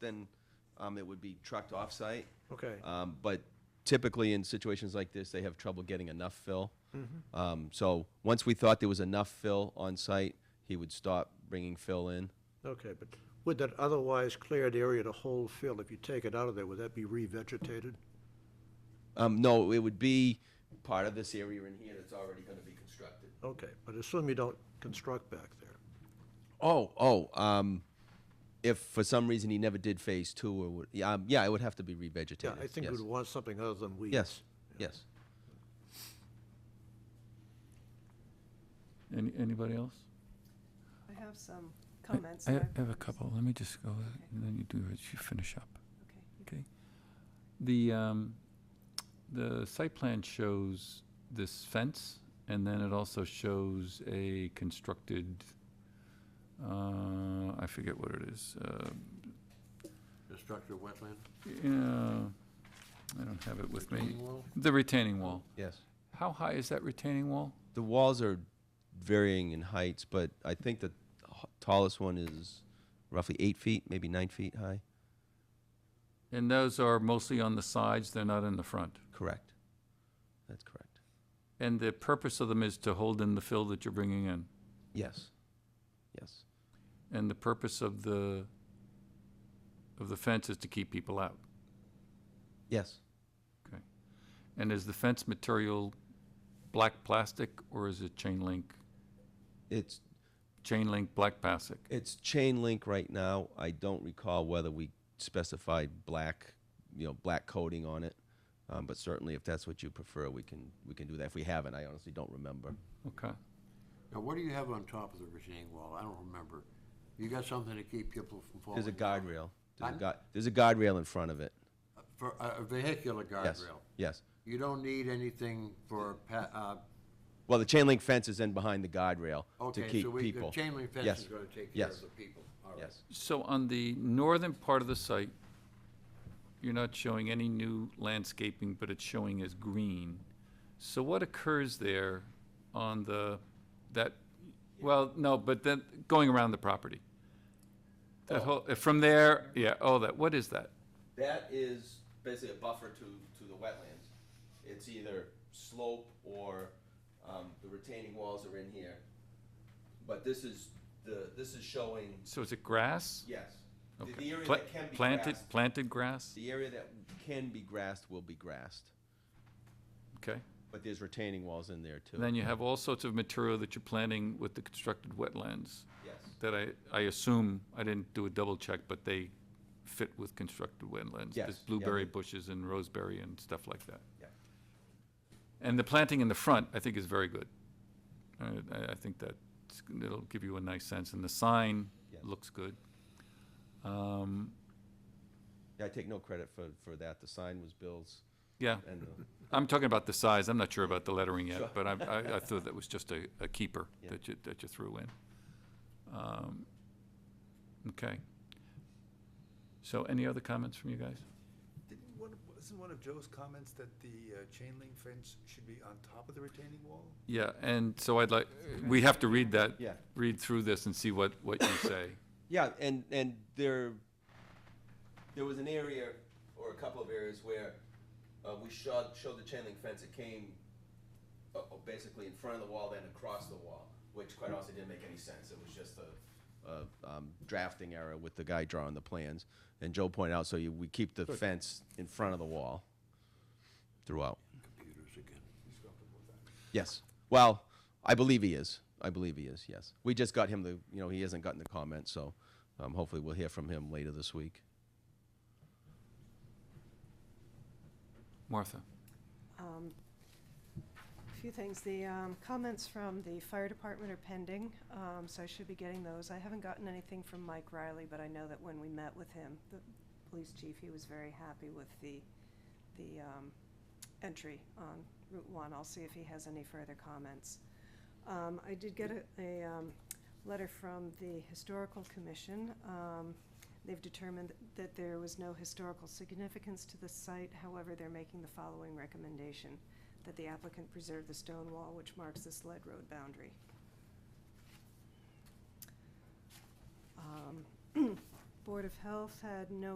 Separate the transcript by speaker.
Speaker 1: then um, it would be trucked off-site.
Speaker 2: Okay.
Speaker 1: Um, But typically, in situations like this, they have trouble getting enough fill. Um, So once we thought there was enough fill on-site, he would stop bringing fill in.
Speaker 2: Okay, but would that otherwise cleared area to hold fill, if you take it out of there, would that be revegetated?
Speaker 1: Um, No, it would be part of this area in here that's already going to be constructed.
Speaker 2: Okay, but assume you don't construct back there.
Speaker 1: Oh, oh, um, if for some reason he never did phase two or, would- yeah, um, yeah, it would have to be revegetated.
Speaker 2: Yeah, I think
Speaker 1: yes.
Speaker 2: we'd want something other than weeds.
Speaker 1: Yes, yes.
Speaker 3: Any, anybody else?
Speaker 4: I have some
Speaker 3: I-
Speaker 4: comments.
Speaker 3: I
Speaker 4: that
Speaker 3: ha-
Speaker 4: I've
Speaker 3: have a
Speaker 4: noticed.
Speaker 3: couple. Let me just go, and then you do, it. you finish up.
Speaker 4: Okay.
Speaker 3: Okay. The, um, the site plan shows this fence, and then it also shows a constructed, uh, I forget what it is, uh,
Speaker 5: The structure of wetland?
Speaker 3: yeah, I don't have it with me.
Speaker 5: retaining wall?
Speaker 3: The retaining wall.
Speaker 1: Yes.
Speaker 3: How high is that retaining wall?
Speaker 1: The walls are varying in heights, but I think the h- tallest one is roughly eight feet, maybe nine feet high.
Speaker 3: And those are mostly on the sides, they're not in the front.
Speaker 1: Correct. That's correct.
Speaker 3: And the purpose of them is to hold in the fill that you're bringing in?
Speaker 1: Yes. Yes.
Speaker 3: And the purpose of the, of the fence is to keep people out.
Speaker 1: Yes.
Speaker 3: And is the fence material black plastic or is it chain link?
Speaker 1: It's
Speaker 3: Chain link, black plastic?
Speaker 1: it's chain link right now. I don't recall whether we specified black, you know, black coating on it. Um, but certainly, if that's what you prefer, we can we can do that. If we haven't, I honestly don't remember.
Speaker 3: Okay.
Speaker 5: Now, what do you have on top of the retaining wall? I don't remember. You got something to keep people from falling?
Speaker 1: There's a guardrail. There's a,
Speaker 5: Oh, Pardon?
Speaker 1: gu- there's a guardrail in front of it.
Speaker 5: Uh, For a a vehicular
Speaker 1: Yes.
Speaker 5: guardrail?
Speaker 1: Yes.
Speaker 5: You don't need anything for, pa- uh,
Speaker 1: Well, the chain link fence is in behind the guardrail to
Speaker 5: okay,
Speaker 1: keep
Speaker 5: so we, the
Speaker 1: people.
Speaker 5: chain link fence
Speaker 1: Yes.
Speaker 5: is gonna take care
Speaker 1: Yes.
Speaker 5: of the people. All right.
Speaker 1: Yes.
Speaker 3: So on the northern part of the site, you're not showing any new landscaping, but it's showing as green. So what occurs there on the, that, well, no, but then going around the property? That
Speaker 1: Oh.
Speaker 3: whole, uh, from there, yeah, oh, that, what is that?
Speaker 1: That is basically a buffer to, to the wetlands. It's either slope or, um, the retaining walls are in here. But this is, the, this is showing,
Speaker 3: So is it grass?
Speaker 1: yes. The-
Speaker 3: Okay.
Speaker 1: The area
Speaker 3: Pla-
Speaker 1: that can be
Speaker 3: Planted,
Speaker 1: grassed,
Speaker 3: planted grass?
Speaker 1: the area that can be grassed will be grassed,
Speaker 3: Okay.
Speaker 1: but there's retaining walls in there too.
Speaker 3: And then you have all sorts of material that you're planting with the constructed wetlands
Speaker 1: Yes,
Speaker 3: that I, I assume, I didn't do a double check, but they fit with constructed wetlands.
Speaker 1: Yes,
Speaker 3: There's
Speaker 1: yeah,
Speaker 3: blueberry
Speaker 1: they-
Speaker 3: bushes and roseberry and stuff like that.
Speaker 1: yeah.
Speaker 3: And the planting in the front, I think, is very good. I, I- I think that it'll give you a nice sense, and the sign
Speaker 1: Yes.
Speaker 3: looks good. Um,
Speaker 1: Yeah, I take no credit for, for that. The sign was Bill's
Speaker 3: Yeah,
Speaker 1: and the
Speaker 3: I'm talking about the size, I'm not sure about the lettering
Speaker 1: Sure.
Speaker 3: yet, but I, I, I thought that was just a, a keeper
Speaker 1: Yeah.
Speaker 3: that you, that you threw in. Um, Okay. So any other comments from you guys?
Speaker 6: Didn't one, of- wasn't one of Joe's comments that the uh, chain link fence should be on top of the retaining wall?
Speaker 3: Yeah, and so I'd like, we have to read that.
Speaker 1: Yeah.
Speaker 3: Read through this and see what, what you say.
Speaker 1: Yeah, and, and there, there was an area, or a couple of areas where, uh, we showed, showed the chain link fence, it came, uh, uh, basically in front of the wall, then across the wall, which quite honestly didn't make any sense, it was just a, a, um, drafting error with the guy drawing the plans, and Joe pointed out, so you, we keep the fence in front of the wall throughout.
Speaker 5: Computers again.
Speaker 1: Yes. Well, I believe he is. I believe he is. Yes. We just got him the. You know, he hasn't gotten the comment, so um, hopefully we'll hear from him later this week.
Speaker 3: Martha?
Speaker 4: Um, A few things. The um, comments from the fire department are pending, um, so I should be getting those. I haven't gotten anything from Mike Riley, but I know that when we met with him, the police chief, he was very happy with the, the um, entry on Route One. I'll see if he has any further comments. Um, I did get a, a um, letter from the historical commission. Um, They've determined that there was no historical significance to the site, however, they're making the following recommendation, that the applicant preserve the stone wall which marks this lead road boundary. Um, Board of Health had no